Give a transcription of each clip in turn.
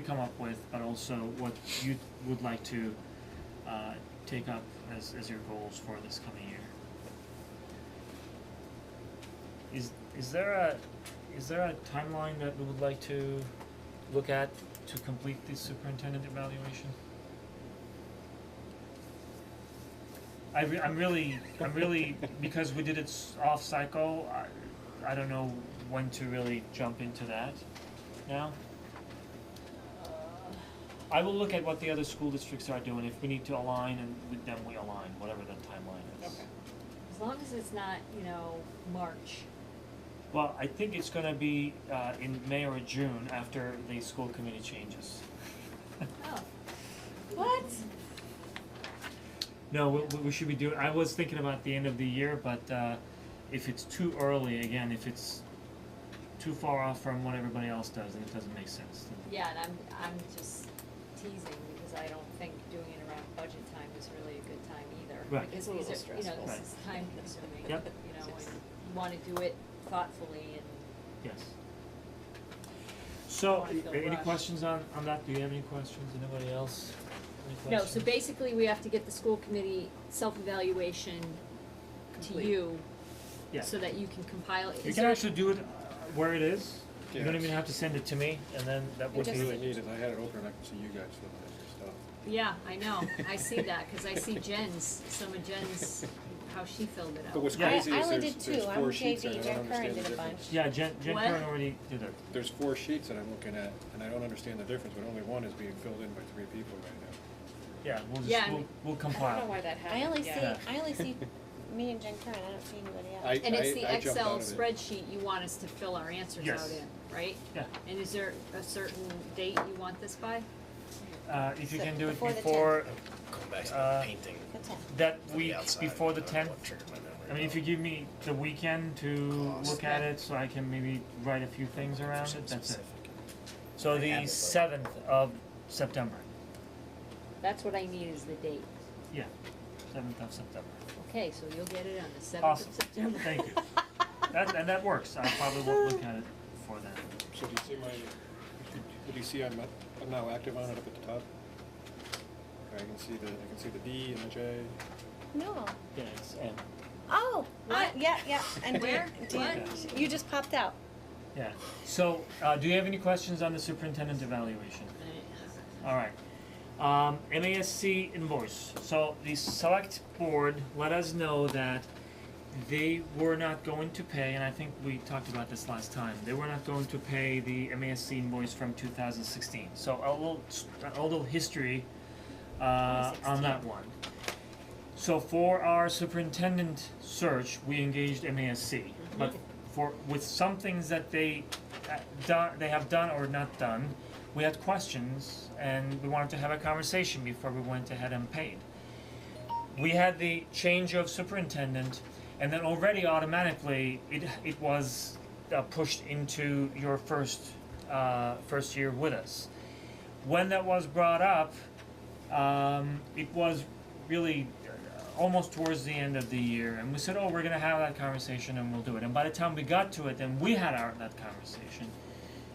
you come up with, but also what you would like to uh, take up as, as your goals for this coming year. Is is there a is there a timeline that we would like to look at to complete the superintendent evaluation? I re- I'm really I'm really because we did it s- off cycle. I I don't know when to really jump into that now. I will look at what the other school districts are doing, if we need to align and with them, we align, whatever the timeline is. Okay. As long as it's not, you know, March. Well, I think it's gonna be uh in May or June after the school committee changes. Oh. What? No, we we- we should be doing, I was thinking about the end of the year, but uh if it's too early, again, if it's too far off from what everybody else does, then it doesn't make sense, then Yeah, and I'm, I'm just teasing because I don't think doing it around budget time is really a good time either. Right. Because It's a these little are, you know, stressful. this Right. is time consuming, you know, Yep. and you wanna do it thoughtfully and Yes. So, I feel any rushed. questions on on that, do you have any questions, anybody else, any questions? No, so basically we have to get the school committee self-evaluation to Complete. you Yeah. so that you can compile it. You Is can there- actually do it uh, where it is, you don't Yes. even have to send it to me, and then that would be What you really it. need is, I had it open and I could see you guys looking at your stuff. Yeah, I know, I see that, cause I see Jen's, some of Jen's, how she filled it out. But what's Yeah. I- crazy I is only there's, did there's two. I'm four sheets JB. and I Jack don't understand Curran the did a difference. Yeah, Jen, Jen What? Curran already did it, There's four sheets that I'm looking at and I don't understand the difference, but only one is being filled in by three people right yeah, we'll Yeah, I just, we'll, mean- we'll I don't know compile, why that happened. I only see, yeah. Yeah. I only see me and Jen Curran, I don't see anybody else. now. I, I, I jumped out of it. And it's the Excel spreadsheet you want us to fill our answers out Yes. in, right? yeah, And is there a certain date you want this by? uh, if you So can do it before the before, Going back to Uh, the painting. That's it. that on the week outside, before the I don't know tenth, what triggered my memory I mean, if about you give me the weekend to Cost. look at it, so I can maybe write a few things around it, something that's it. specific. So I have it, the but- seventh of September, That's what I need is the date. yeah, seventh of September, Okay, so you'll get it on the seventh awesome, of September. thank you. That, and that works, I probably won't look at it before then. So do you see my, do you see I'm, I'm now active on it up at the top? Okay, I can see the, I can see the D and the J. No. Yeah, it's M. Oh, I, What? yeah, yeah, and Where? Dan, Dan, What? you just popped out. Yeah, so, uh, do you have any questions on the superintendent evaluation? Alright, um, MASC invoice, so the select board let us know that they were not going to pay, and I think we talked about this last time, they were not going to pay the MASC invoice from two thousand sixteen, so a little, a little history, uh, on that one. So for our superintendent search, we engaged MASC, but for, with some things that they uh, done, they have done or not done, we had questions and we wanted to have a conversation before we went ahead and paid. We had the change of superintendent and then already automatically it it was uh, pushed into your first uh, first year with us. When that was brought up, um, it was really uh, almost towards the end of the year, and we said, "Oh, we're going to have that conversation, and we'll do it." And by the time we got to it, and we had our that conversation,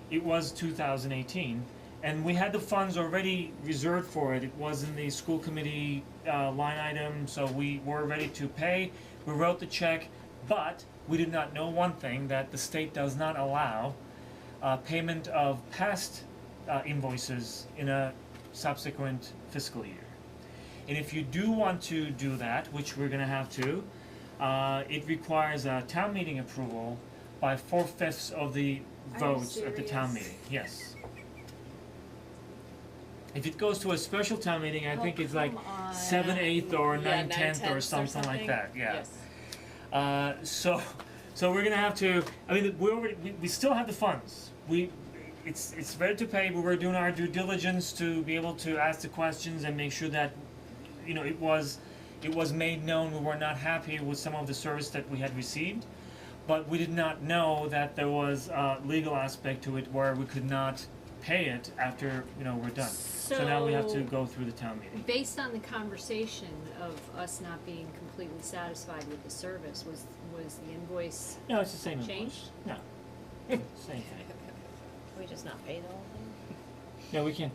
it was 2018, and we had the funds already reserved for it. It was in the school committee uh, line item, so we were ready to pay. We wrote the check, but we did not know one thing that the state does not allow uh, payment of past uh, invoices in a subsequent fiscal year. And if you do want to do that, which we're gonna have to, uh, it requires a town meeting approval by four fifths of the you votes at the town serious? meeting, yes. If it goes to a special town meeting, I think it's like seven eighth or nine tenth or something like that, yeah. Yes. Uh, so, so we're gonna have to. I mean, we already we, we still have the funds. We, it's it's ready to pay, but we're doing our due diligence to be able to ask the questions and make sure that, you know, it was, it was made known we were not happy with some of the service that we had received, but we did not know that there was a legal aspect to it where we could not pay it after you know we're done. So, now we have to So- go through the town meeting. Based on the conversation of us not being completely satisfied with the service, was, was the invoice, No, it's the same. invoice. Changed? No, same thing. Can we just not pay the whole thing? Yeah, we can't